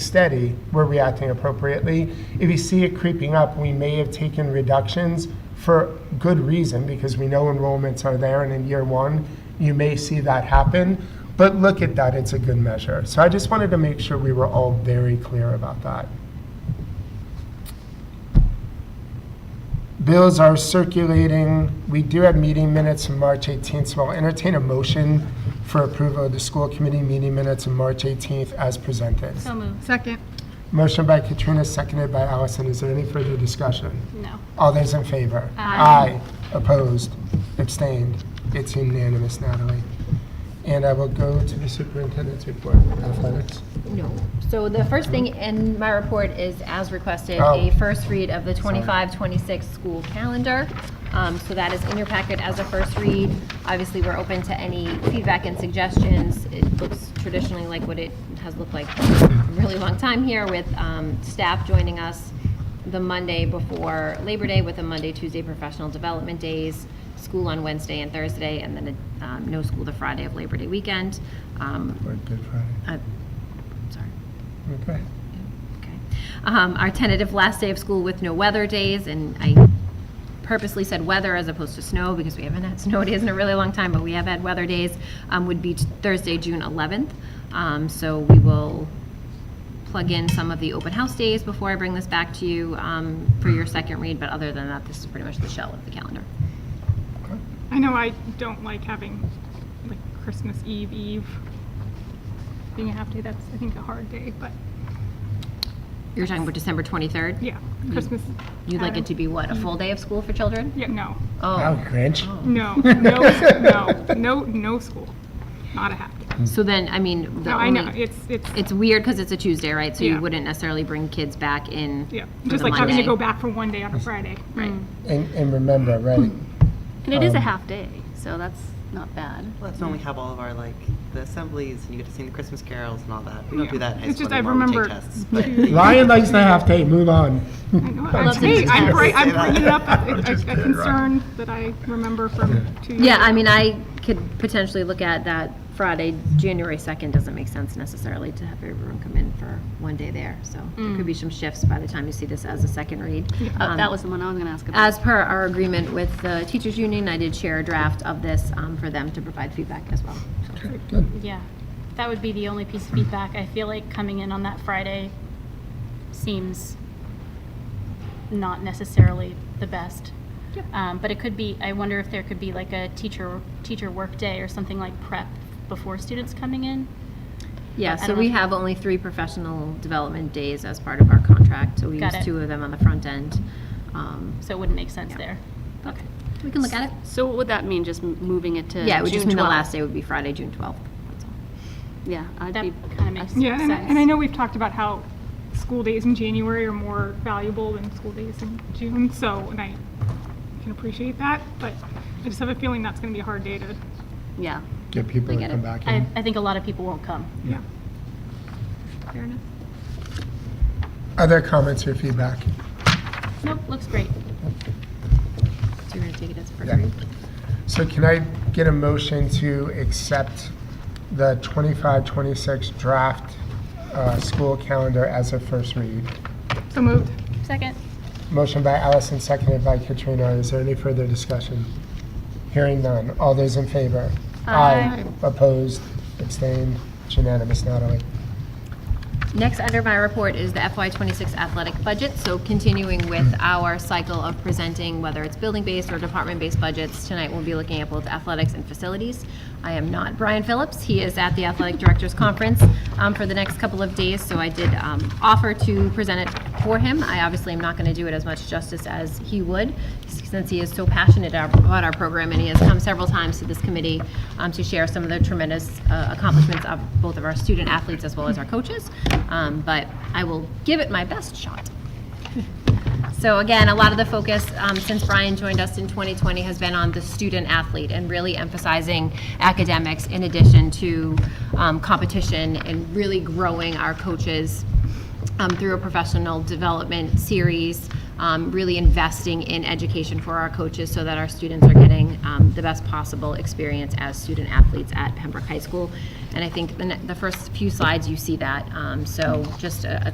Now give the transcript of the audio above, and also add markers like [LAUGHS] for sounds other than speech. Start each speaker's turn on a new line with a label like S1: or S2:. S1: steady, we're reacting appropriately. If you see it creeping up, we may have taken reductions for good reason because we know enrollments are there, and in year one, you may see that happen. But look at that, it's a good measure. So I just wanted to make sure we were all very clear about that. Bills are circulating. We do have meeting minutes from March 18th, so I'll entertain a motion for approval of the school committee meeting minutes on March 18th as presented.
S2: So moved.
S3: Second.
S1: Motion by Katrina, seconded by Allison. Is there any further discussion?
S2: No.
S1: All those in favor?
S2: Aye.
S1: Aye. Opposed? Abstained? It's unanimous, Natalie. And I will go to the superintendent's report. Athletics.
S4: No. So the first thing in my report is, as requested,
S1: Oh.
S4: a first read of the 25-26 school calendar. Um, So that is in your packet as a first read. Obviously, we're open to any feedback and suggestions. It looks traditionally like what it has looked like for a really long time here with um, staff joining us the Monday before Labor Day with a Monday, Tuesday professional development days, school on Wednesday and Thursday, and then um, no school the Friday of Labor Day weekend. Um,
S1: Or Good Friday.
S4: uh, Sorry.
S1: Okay.
S4: Okay. Um, Our tentative last day of school with no weather days, and I purposely said weather as opposed to snow because we haven't had [LAUGHS] snow days in a really long time, but we have had weather days, um, would be Thursday, June 11th. Um, So we will plug in some of the open house days before I bring this back to you um, for your second read, but other than that, this is pretty much the shell of the calendar.
S3: I know I don't like having like Christmas Eve Eve being a half day. That's I think a hard day, but
S4: You're talking about December 23rd?
S3: yeah, Christmas.
S4: You'd like it to be what, a full day of school for children?
S3: Yeah, no,
S4: Oh,
S1: Wow, Grinch.
S3: no, no, no, no, no school, not a half day.
S4: so then, I mean, the
S3: No, I know
S4: only-
S3: it's it's
S4: It's weird because it's a Tuesday, right? So
S3: Yeah.
S4: you wouldn't necessarily bring kids back in.
S3: yeah,
S4: for
S3: just
S4: the
S3: like having to
S4: Monday.
S3: go back for one day on a Friday.
S4: Right.
S1: And, and remember, right,
S2: And it is a
S1: Um,
S2: half day, so that's not bad.
S5: Well, that's when we have all of our like the assemblies and you get to sing the Christmas carols and all that. We don't
S3: Yeah.
S5: do that in high
S3: It's
S5: school
S3: just I
S5: anymore. We take
S3: remember
S5: tests,
S3: [LAUGHS]
S5: but
S1: Lion likes to have tape, move on.
S3: I know.
S1: That's
S3: Hey, I'm,
S4: interesting.
S3: bri- I'm bringing it up
S4: [LAUGHS]
S3: a,
S6: Which
S3: a,
S6: is
S3: a
S6: good, right.
S3: concern that I remember from two years
S4: Yeah, I
S3: ago.
S4: mean, I could potentially look at that Friday, January 2nd doesn't make sense necessarily to have everyone come in for one day there. So there
S3: Mm.
S4: could be some shifts by the time you see this as a second read.
S2: Oh,
S4: Um,
S2: That was the one I was going to ask about.
S4: As per our agreement with the teachers union, I did share a draft of this um, for them to provide feedback as well.
S2: Yeah, that would be the only piece of feedback. I feel like coming in on that Friday seems not necessarily the best. Um, but it could be, I wonder if there could be like a teacher, teacher work day or something like prep before students coming in?
S4: Yeah,
S2: I
S4: so
S2: don't
S4: we
S2: know if-
S4: have only three professional development days as part of our contract. So we
S2: Got
S4: use
S2: it.
S4: two of them on the front end. Um,
S2: So it wouldn't make sense
S4: Yeah.
S2: there. Okay.
S4: We can look at it.
S7: So what would that mean, just m- moving it to June 12th?
S4: Yeah, it would just mean the last day would be Friday, June 12th. That's all.
S7: Yeah, I'd
S2: That
S7: be,
S2: kind of makes sense.
S3: Yeah, and, I- and I know we've talked about how school days in January are more valuable than school days in June, so, and I can appreciate that, but I just have a feeling that's gonna be a hard day to,
S7: yeah.
S1: Get people to
S4: get
S1: come
S4: it.
S1: back
S2: I,
S1: in.
S2: I think a lot of people won't come.
S1: Yeah.
S4: Fair enough.
S1: Other comments or feedback?
S2: Nope, looks great.
S4: So you're going to take it as a first
S1: Yeah.
S4: read?
S1: So can I get a motion to accept the 25-26 draft uh, school calendar as a first read?
S3: so moved.
S2: Second.
S1: Motion by Allison, seconded by Katrina. Is there any further discussion? Hearing none. All those in favor? Aye. Opposed? Abstained? It's unanimous, Natalie.
S4: Next under my report is the FY26 athletic budget. So continuing with our cycle of presenting, whether it's building-based or department-based budgets, tonight we'll be looking at both athletics and facilities. I am not Brian Phillips. He is at the Athletic Directors Conference um, for the next couple of days, so I did um, offer to present it for him. I obviously am not going to do it as much justice as he would, since he is so passionate about our program, and he has come several times to this committee um, to share some of the tremendous uh, accomplishments of both of our student athletes as well as our coaches. Um, But I will give it my best shot. So again, a lot of the focus um, since Brian joined us in 2020 has been on the student athlete and really emphasizing academics in addition to um, competition and really growing our coaches um, through a professional development series, um, um, really investing in education for our coaches so that our students are getting um, the best possible experience as student athletes at Pembroke High School. And I think the, ne- the first few slides, you see that. Um, So just a a